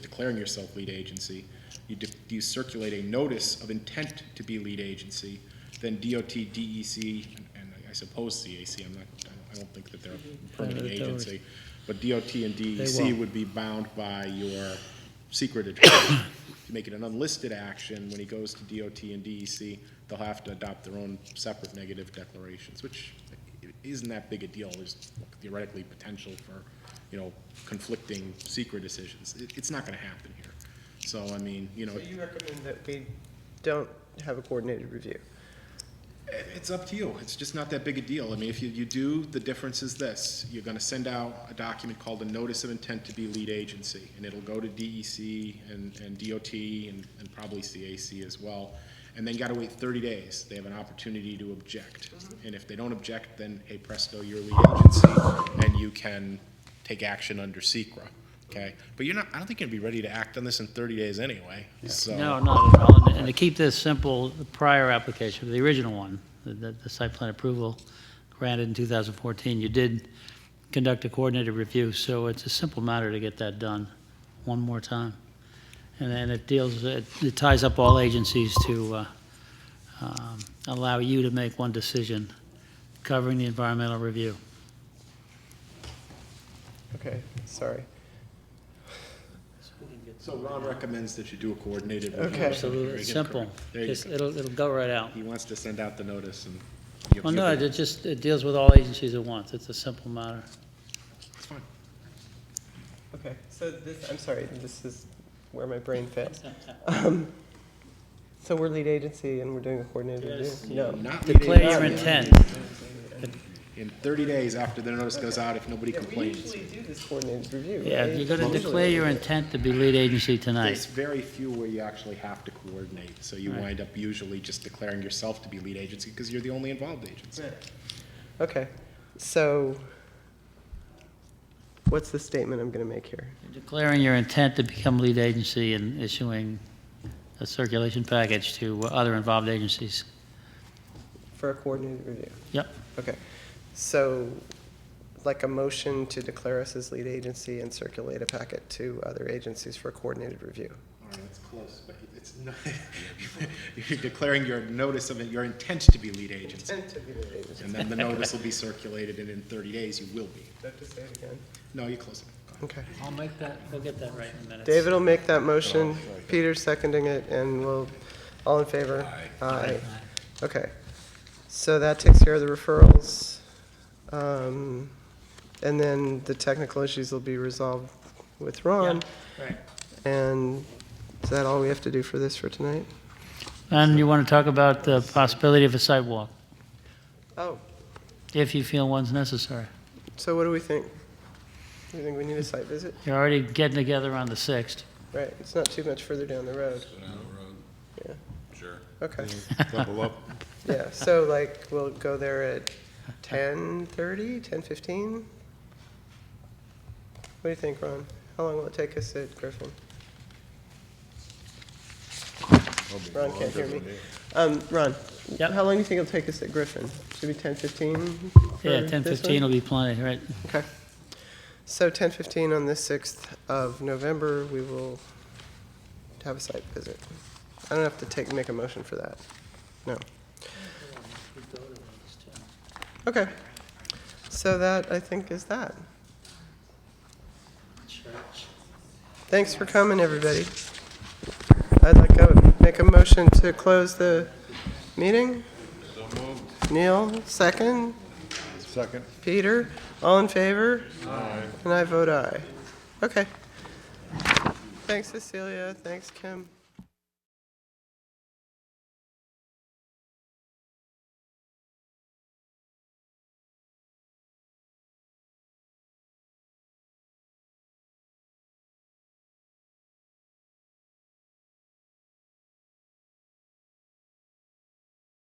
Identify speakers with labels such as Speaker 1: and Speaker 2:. Speaker 1: declaring yourself lead agency. You, de- you circulate a notice of intent to be lead agency, then DOT, DEC, and- E and I suppose CAC, I'm not, I don't- I don't think that they're a permitting
Speaker 2: Private authority.
Speaker 1: agency. But DOT and E
Speaker 2: They
Speaker 1: DEC
Speaker 2: won't.
Speaker 1: would be bound by your secret attorney. If you make it an unlisted action, when he goes to DOT and DEC, they'll have to adopt their own separate negative declarations, which isn't that big a deal. There's theoretically potential for, you know, conflicting secret decisions. It, it's not gonna happen here. So, I mean, you know,
Speaker 3: So you recommend that we don't have a coordinated review?
Speaker 1: It- It's up to you. It's just not that big a deal. I mean, if you, you do, the difference is this. You're gonna send out a document called a Notice of Intent to be Lead Agency, and it'll go to DEC and, and DOT and, and probably CAC as well. And then you gotta wait thirty days. They have an opportunity to object. And if they don't object, then, hey presto, you're a lead agency, and you can take action under Secra. okay? But you're not, I don't think you're gonna be ready to act on this in thirty days anyway, so.
Speaker 2: No, not at all. And- And to keep this simple, the prior application, the original one, the- the the site plan approval granted in 2014, you did conduct a coordinated review, so it's a simple matter to get that done one more time. And then it deals, it it ties up all agencies to uh, um, allow you to make one decision covering the environmental review.
Speaker 3: Okay, sorry.
Speaker 1: So Ron recommends that you do a coordinated review.
Speaker 3: Okay.
Speaker 1: Very
Speaker 2: Absolutely,
Speaker 1: good,
Speaker 2: simple.
Speaker 1: correct. There you
Speaker 2: Just,
Speaker 1: go.
Speaker 2: it'll, it'll go right out.
Speaker 1: He wants to send out the notice and. you-
Speaker 2: Well,
Speaker 1: you-
Speaker 2: no, it just, it deals with all agencies at once. It's a simple matter.
Speaker 1: It's fine.
Speaker 3: Okay, so this, I'm sorry, this is where my brain fails. Um, So we're lead agency and we're doing a coordinated
Speaker 2: Yes.
Speaker 3: review? No.
Speaker 1: Not
Speaker 2: Declare
Speaker 1: meeting
Speaker 2: your
Speaker 1: in-
Speaker 2: intent.
Speaker 1: In thirty days after the notice goes out, if nobody
Speaker 3: Yeah, we
Speaker 1: complains.
Speaker 3: usually do this coordinated review.
Speaker 2: Yeah,
Speaker 3: right?
Speaker 2: you're gonna
Speaker 3: Usually.
Speaker 2: declare your intent to be lead agency
Speaker 1: There's
Speaker 2: tonight.
Speaker 1: very few where you actually have to coordinate, so you
Speaker 2: Right.
Speaker 1: wind up usually just declaring yourself to be lead agency because you're the only involved agency.
Speaker 3: Okay, so what's the statement I'm gonna make here?
Speaker 2: Declaring your intent to become lead agency and issuing a circulation package to other involved agencies.
Speaker 3: For a coordinated review?
Speaker 2: Yep.
Speaker 3: Okay, so like a motion to declare us as lead agency and circulate a packet to other agencies for coordinated review.
Speaker 1: All right, that's close, but it's not, you're declaring your notice of, it- your intent to be lead agency.
Speaker 3: to be lead agency.
Speaker 1: And then the notice will be circulated and in thirty days you will be.
Speaker 3: Have to say it again.
Speaker 1: No, you're close enough. Go ahead.
Speaker 3: Okay.
Speaker 2: I'll make that, we'll get that right in minutes.
Speaker 3: David will make that motion, Peter's seconding it, and we'll, all in favor? Aye. Okay. So that takes care of the referrals. Um, And then the technical issues will be resolved with Ron.
Speaker 2: right.
Speaker 3: And is that all we have to do for this for tonight?
Speaker 2: And you wanna talk about the possibility of a sidewalk,
Speaker 3: Oh,
Speaker 2: if you feel one's necessary.
Speaker 3: so what do we think? Do you think we need a site visit?
Speaker 2: You're already getting together on the sixth.
Speaker 3: Right, it's not too much further down the road. Yeah.
Speaker 4: Sure.
Speaker 3: Okay,
Speaker 4: Double up.
Speaker 3: yeah, so like, we'll go there at 10:30, 10:15? What do you think, Ron? How long will it take us at Griffin? Ron can't hear me. Um, Ron?
Speaker 2: Yep.
Speaker 3: How long do you think it'll take us at Griffin? Should be 10:15? for
Speaker 2: Yeah,
Speaker 3: this
Speaker 2: ten fifteen
Speaker 3: one?
Speaker 2: will be plenty, right?
Speaker 3: Okay. So 10:15 on the 6th of November, we will have a site visit. I don't have to take, make a motion for that. No. Okay. So that, I think, is that. Thanks for coming, everybody. I'd like to make a motion to close the meeting. Neil, second.
Speaker 4: Second.
Speaker 3: Peter, all in favor? And I vote aye. Okay. Thanks, Cecilia. Thanks, Kim.